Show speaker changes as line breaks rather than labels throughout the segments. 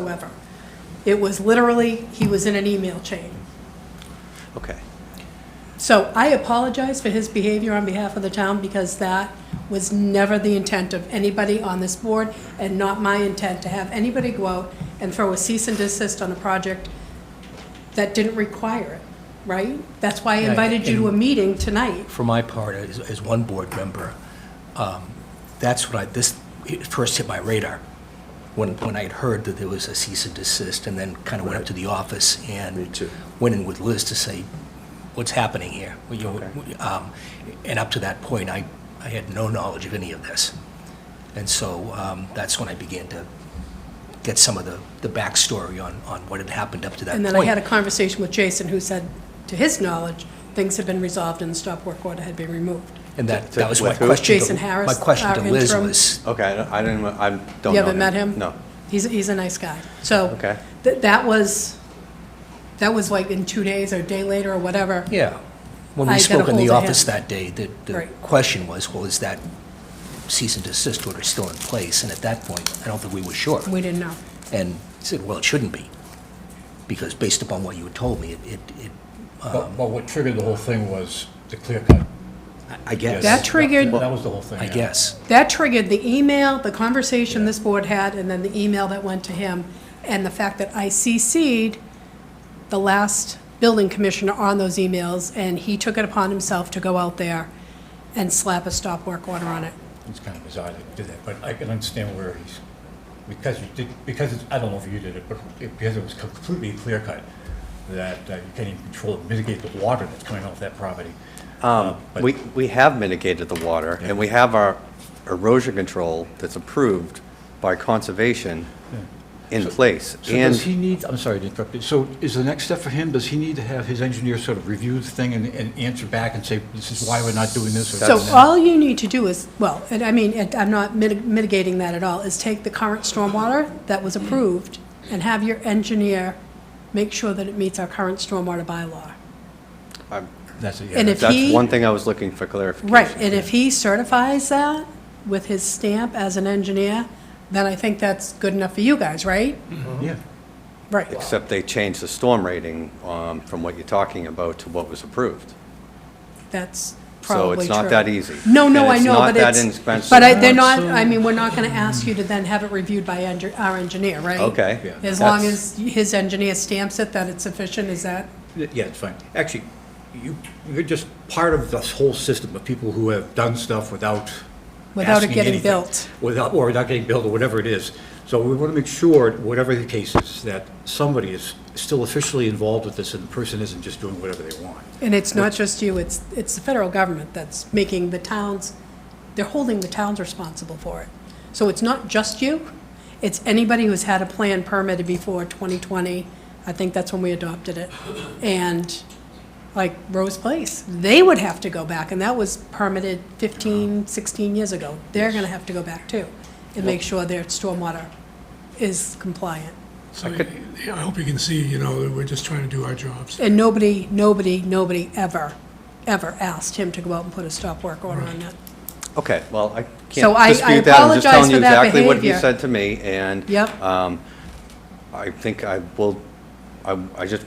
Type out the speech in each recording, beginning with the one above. whatsoever. It was literally, he was in an email chain.
Okay.
So I apologize for his behavior on behalf of the town because that was never the intent of anybody on this board and not my intent to have anybody go out and throw a cease and desist on a project that didn't require it, right? That's why I
Yeah,
invited you to a
and-
meeting tonight.
for my part, as, as one board member, um, that's what I, this it first hit my radar, when, when I had heard that there was a cease and desist, and then kind of went up to the office and.
Me too.
Went in with Liz to say, what's happening here? Well, you know,
Okay.
um, And up to that point, I, I had no knowledge of any of this. And so um, that's when I began to get some of the, the backstory on, on what had happened up to that point.
And then I had a conversation with Jason who said, to his knowledge, things had been resolved and the stop work order had been removed.
And that,
To-
that was my
with who?
question. to-
Jason Harris,
My question to
our
Liz
interim-
was,
Okay, I don't- I didn't, I don't know.
You haven't met him?
No.
He's, he's a nice guy. So.
Okay.
th- That was, that was like in two days or a day later or whatever.
yeah. When
I
we
got
spoke in the
ahold of
office
him.
that day, the, the
Right.
question was, well, is that cease and desist order still in place? And at that point, I don't think we were sure.
We didn't know.
And I said, well, it shouldn't be, because based upon what you had told me, it, it- it,
But, but what triggered the whole thing was the clear cut.
I guess.
That triggered,
That was the whole thing.
I
yeah.
guess.
that triggered the email, the conversation this board had, and then the email that went to him, and the fact that I CC'd the last building commissioner on those emails, and he took it upon himself to go out there and slap a stop work order on it.
It's kind of bizarre to do that, but I can understand where he's, because you did, because, it's- I don't know if you did it, but it- because it was completely clear cut, that uh, you can't even control, mitigate the water that's coming off that property. Uh, but-
We, we have mitigated the water, and we have our erosion control that's approved by conservation in place.
So does he
And
need, I'm sorry to interrupt you, so is the next step for him, does he need to have his engineer sort of review the thing and, and answer back and say, this is why we're not doing this or
So
that?
all you need to do is, well, and I mean, and I'm not mitig- mitigating that at all, is take the current stormwater that was approved and have your engineer make sure that it meets our current stormwater bylaw.
That's it, yeah.
And if
that's
he,
one thing I was looking for clarification.
right, and if he certifies that with his stamp as an engineer, then I think that's good enough for you guys, right?
Yeah.
Right.
Except they changed the storm rating um, from what you're talking about to what was approved.
That's
So
probably true.
it's not that easy.
No, no,
And
I
it's
know,
not
but
that
it's,
inexpensive.
but I, they're not,
So-
I mean, we're not gonna ask you to then have it reviewed by engi- our engineer, right?
Okay.
Yeah.
As long
That's-
as his engineer stamps it that it's sufficient, is that,
Yeah, it's fine. Actually, you, you're just part of this whole system of people who have done stuff without
Without it
asking
getting
anything.
built.
Without, or without getting built, or whatever it is. So we want to make sure, whatever the case is, that somebody is still officially involved with this, and the person isn't just doing whatever they want.
and it's not just you, it's, it's the federal government that's making the towns, they're holding the towns responsible for it. So it's not just you, it's anybody who's had a plan permitted before 2020, I think that's when we adopted it. And like Rose Place, they would have to go back, and that was permitted 15, 16 years ago. They're gonna have to go back too, and make sure their stormwater is compliant.
So yeah, I hope you can see, you know, that we're just trying to do our jobs.
And nobody, nobody, nobody ever, ever asked him to go out and put a stop work order on that.
Okay, well, I
So I- I
can't dispute that. I'm
apologize
just telling you
for that
exactly what he
behavior.
said to me, and
Yep.
um, I think I will, I I just,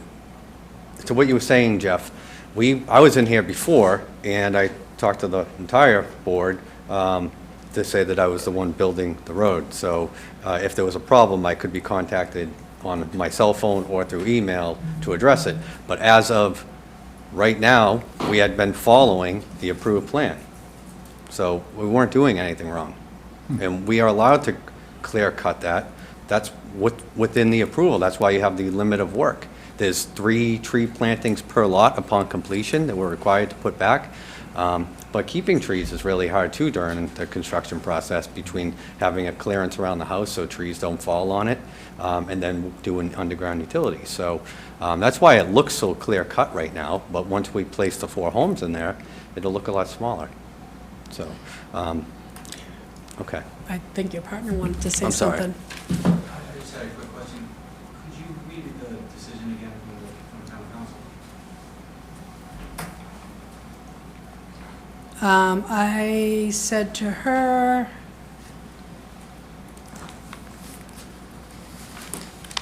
to what you were saying, Jeff, we, I was in here before, and I talked to the entire board um, to say that I was the one building the road. So uh, if there was a problem, I could be contacted on my cell phone or through email to address it. But as of right now, we had been following the approved plan. So we weren't doing anything wrong. And we are allowed to clear-cut that. That's with- within the approval. That's why you have the limit of work. There's three tree plantings per lot upon completion that we're required to put back. Um, But keeping trees is really hard too during the construction process between having a clearance around the house so trees don't fall on it um, and then doing underground utilities. So um, that's why it looks so clear-cut right now, but once we place the four homes in there, it'll look a lot smaller. So, um, okay.
I think your partner wanted to say
I'm sorry.
something.
I just had a quick question. Could you read the decision again from the, from the town council?
Um, I said to her,